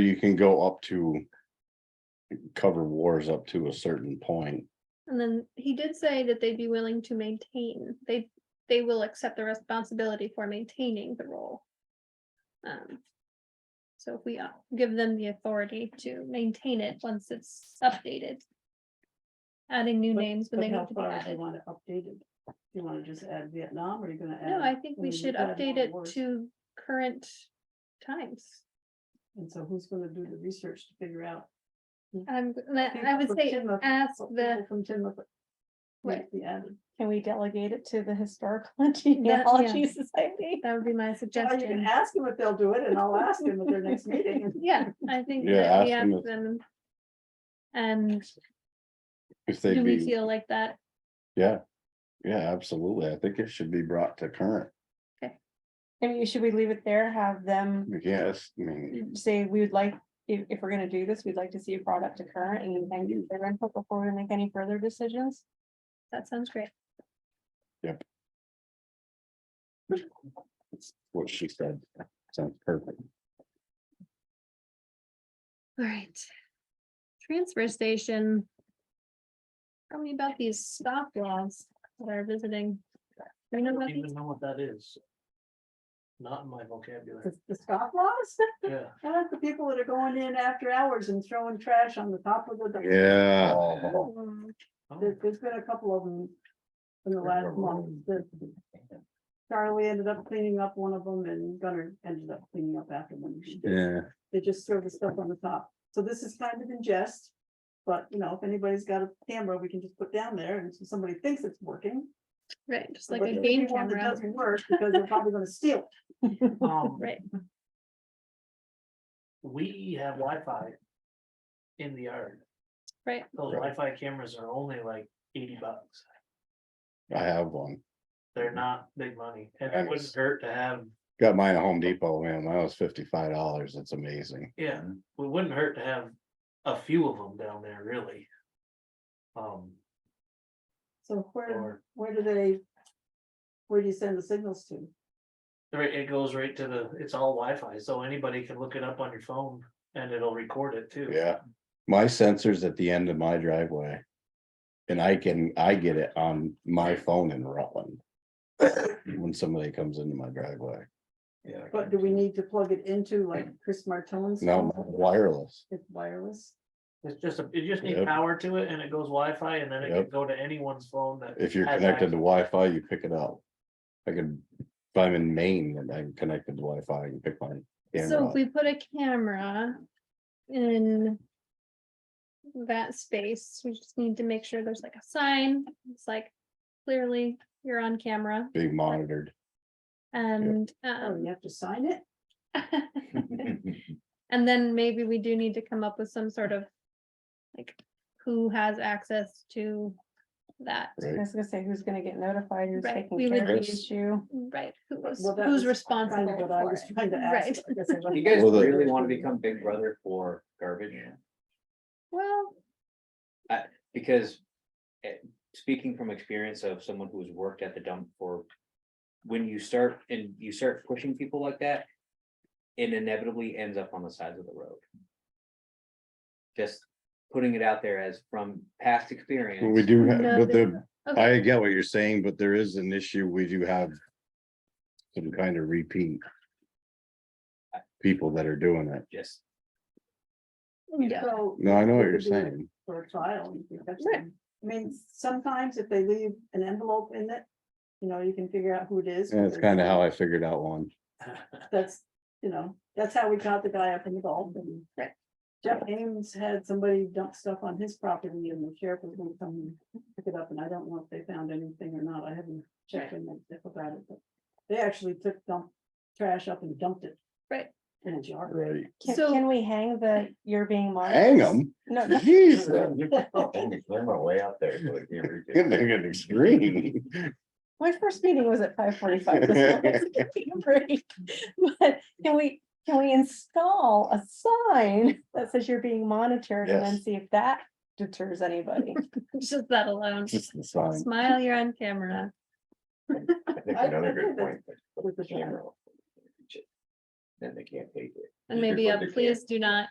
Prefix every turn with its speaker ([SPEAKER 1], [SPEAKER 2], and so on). [SPEAKER 1] You can go up to. Cover wars up to a certain point.
[SPEAKER 2] And then he did say that they'd be willing to maintain, they, they will accept the responsibility for maintaining the role. Um, So if we uh, give them the authority to maintain it once it's updated. Adding new
[SPEAKER 3] But-
[SPEAKER 2] names when
[SPEAKER 3] But
[SPEAKER 2] they
[SPEAKER 3] how
[SPEAKER 2] need to be
[SPEAKER 3] far do you
[SPEAKER 2] added.
[SPEAKER 3] want it updated? Do you wanna just add Vietnam, or are you gonna add?
[SPEAKER 2] No, I think we
[SPEAKER 3] mean,
[SPEAKER 2] should
[SPEAKER 3] you've got
[SPEAKER 2] update
[SPEAKER 3] more
[SPEAKER 2] it
[SPEAKER 3] wars.
[SPEAKER 2] to current times.
[SPEAKER 3] And so who's gonna do the research to figure out?
[SPEAKER 2] Um, and I I
[SPEAKER 3] People
[SPEAKER 2] would
[SPEAKER 3] from
[SPEAKER 2] say,
[SPEAKER 3] Timbuk-
[SPEAKER 2] ask
[SPEAKER 3] what
[SPEAKER 2] the,
[SPEAKER 3] people From Timbuk.
[SPEAKER 2] Right.
[SPEAKER 3] Needs to be added.
[SPEAKER 4] Can we delegate it to the Historical and Genealogy Society?
[SPEAKER 2] that would be my
[SPEAKER 3] Or you can
[SPEAKER 2] suggestion.
[SPEAKER 3] ask them if they'll do it, and I'll ask them at their next meeting.
[SPEAKER 2] Yeah, I think
[SPEAKER 1] Yeah,
[SPEAKER 2] that we
[SPEAKER 1] ask them
[SPEAKER 2] ask
[SPEAKER 1] if-
[SPEAKER 2] them. And
[SPEAKER 1] If they
[SPEAKER 2] do we
[SPEAKER 1] be,
[SPEAKER 2] feel like that?
[SPEAKER 1] yeah. Yeah, absolutely. I think it should be brought to current.
[SPEAKER 4] I mean, should we leave it there, have them
[SPEAKER 1] Yes, I mean,
[SPEAKER 4] say, we would like, if, if we're gonna do this, we'd like to see it brought up to current and thank you for their input before we make any further decisions?
[SPEAKER 2] That sounds great.
[SPEAKER 1] what she said sounds perfect.
[SPEAKER 2] All right. Transfer station. Tell me about these stop laws that are visiting. Do you know about
[SPEAKER 5] don't even
[SPEAKER 2] these?
[SPEAKER 5] know what that is. Not in my vocabulary,
[SPEAKER 3] The the scoff laws,
[SPEAKER 5] yeah.
[SPEAKER 3] that's the people that are going in after hours and throwing trash on the top of the.
[SPEAKER 1] Yeah.
[SPEAKER 2] Um,
[SPEAKER 5] Oh,
[SPEAKER 3] There, has been a couple of them in the last month that Charlie ended up cleaning up one of them and Gunner ended up cleaning up after them.
[SPEAKER 1] Yeah,
[SPEAKER 3] They just throw the stuff on the top. So this is kind of in jest. But, you know, if anybody's got a camera, we can just put down there and so somebody thinks it's working.
[SPEAKER 2] Right, just like
[SPEAKER 3] but
[SPEAKER 2] a
[SPEAKER 3] there'll be
[SPEAKER 2] game
[SPEAKER 3] one that
[SPEAKER 2] camera,
[SPEAKER 3] Doesn't work because they're probably gonna steal. it.
[SPEAKER 5] um,
[SPEAKER 2] right?
[SPEAKER 5] We have Wi-Fi in the yard.
[SPEAKER 2] Right.
[SPEAKER 5] Those Wi-Fi cameras are only like eighty bucks.
[SPEAKER 1] I have one.
[SPEAKER 5] They're not big money and
[SPEAKER 1] And
[SPEAKER 5] it wouldn't
[SPEAKER 1] it's-
[SPEAKER 5] hurt to have,
[SPEAKER 1] Got mine at Home Depot, man. Mine was fifty-five dollars. It's amazing.
[SPEAKER 5] yeah, it wouldn't hurt to have a few of them down there really. Um,
[SPEAKER 3] So where,
[SPEAKER 5] or,
[SPEAKER 3] where do they? Where do you send the signals to?
[SPEAKER 5] right, it goes right to the, it's all Wi-Fi, so anybody can look it up on your phone and it'll record it too.
[SPEAKER 1] Yeah, my sensor's at the end of my driveway. And I can, I get it on my phone in Rutland. When somebody comes into my driveway.
[SPEAKER 5] Yeah.
[SPEAKER 3] But do we need to plug it into like Chris Martone's?
[SPEAKER 1] No, wireless.
[SPEAKER 3] It's wireless.
[SPEAKER 5] It's just, a it just needs
[SPEAKER 1] Yep.
[SPEAKER 5] power to it and it goes Wi-Fi, and then it
[SPEAKER 1] Yep.
[SPEAKER 5] can go to anyone's phone that.
[SPEAKER 1] If you're
[SPEAKER 5] has
[SPEAKER 1] connected to
[SPEAKER 5] access.
[SPEAKER 1] Wi-Fi, you pick it up. I could, if I'm in Maine and I'm connected to Wi-Fi, I can pick my
[SPEAKER 2] So
[SPEAKER 1] camera
[SPEAKER 2] if
[SPEAKER 1] up.
[SPEAKER 2] we put a camera in that space, we just need to make sure there's like a sign. It's like clearly you're on camera
[SPEAKER 1] being monitored.
[SPEAKER 2] and
[SPEAKER 3] Oh,
[SPEAKER 2] um,
[SPEAKER 3] you have to sign it?
[SPEAKER 2] And then maybe we do need to come up with some sort of, like, who has access to that,
[SPEAKER 4] I
[SPEAKER 1] Right,
[SPEAKER 4] was gonna say, who's gonna get notified, who's
[SPEAKER 2] Right,
[SPEAKER 4] taking
[SPEAKER 2] we
[SPEAKER 4] care of
[SPEAKER 2] would
[SPEAKER 4] the
[SPEAKER 1] be-
[SPEAKER 4] issue?
[SPEAKER 2] right? Who was,
[SPEAKER 3] Well, that
[SPEAKER 2] who's
[SPEAKER 3] was kind
[SPEAKER 2] responsible
[SPEAKER 3] of what I
[SPEAKER 2] for
[SPEAKER 3] was
[SPEAKER 2] it?
[SPEAKER 3] trying to ask,
[SPEAKER 2] Right.
[SPEAKER 3] I guess I
[SPEAKER 6] You
[SPEAKER 3] wasn't-
[SPEAKER 6] guys
[SPEAKER 1] Well, the-
[SPEAKER 6] really want to become big brother for garbage,
[SPEAKER 2] Well,
[SPEAKER 6] because. eh, Speaking from experience of someone who's worked at the dump for. When you start and you start pushing people like that. It inevitably ends up on the sides of the road. Just putting it out there as from past experience.
[SPEAKER 1] But we do, have,
[SPEAKER 2] No,
[SPEAKER 1] but
[SPEAKER 2] there's
[SPEAKER 1] the, I get what you're saying, but there is an issue. We do have. Some kind of repeat. People that are doing it.
[SPEAKER 6] Just,
[SPEAKER 2] yeah,
[SPEAKER 3] So,
[SPEAKER 1] No, I know what
[SPEAKER 3] it
[SPEAKER 1] you're
[SPEAKER 3] could be
[SPEAKER 1] saying.
[SPEAKER 3] For a trial, you could catch
[SPEAKER 2] Right.
[SPEAKER 3] them. I mean, sometimes if they leave an envelope in it, you know, you can figure out who it is.
[SPEAKER 1] And it's
[SPEAKER 3] whether-
[SPEAKER 1] kind of how I figured out one.
[SPEAKER 3] That's, you know, that's how we got the guy up in the Gulf and.
[SPEAKER 2] Right.
[SPEAKER 3] Jeff Ames had somebody dump stuff on his property and the sheriff was gonna come pick it up and I don't know if they found anything or not. I haven't checked in that stuff about it, but. They actually took dump trash up and dumped it.
[SPEAKER 2] Right.
[SPEAKER 3] In a jar.
[SPEAKER 1] Right.
[SPEAKER 4] Can,
[SPEAKER 2] So-
[SPEAKER 4] can we hang the, you're being monitored?
[SPEAKER 1] Hang them.
[SPEAKER 4] No, no,
[SPEAKER 1] Jeez.
[SPEAKER 6] way out there.
[SPEAKER 1] Good thing it's extreme.
[SPEAKER 4] my first meeting was at five forty-five. this morning, so give me a break. But can we, can we install a sign that says you're being monitored and then
[SPEAKER 1] Yes.
[SPEAKER 4] see if that deters anybody?
[SPEAKER 2] just that alone.
[SPEAKER 1] Just the sign.
[SPEAKER 2] Smile, you're on camera.
[SPEAKER 3] another good point. With the camera.
[SPEAKER 7] then they can't pay for it.
[SPEAKER 2] And
[SPEAKER 6] You're
[SPEAKER 2] maybe, a
[SPEAKER 6] going to-
[SPEAKER 2] uh, please do not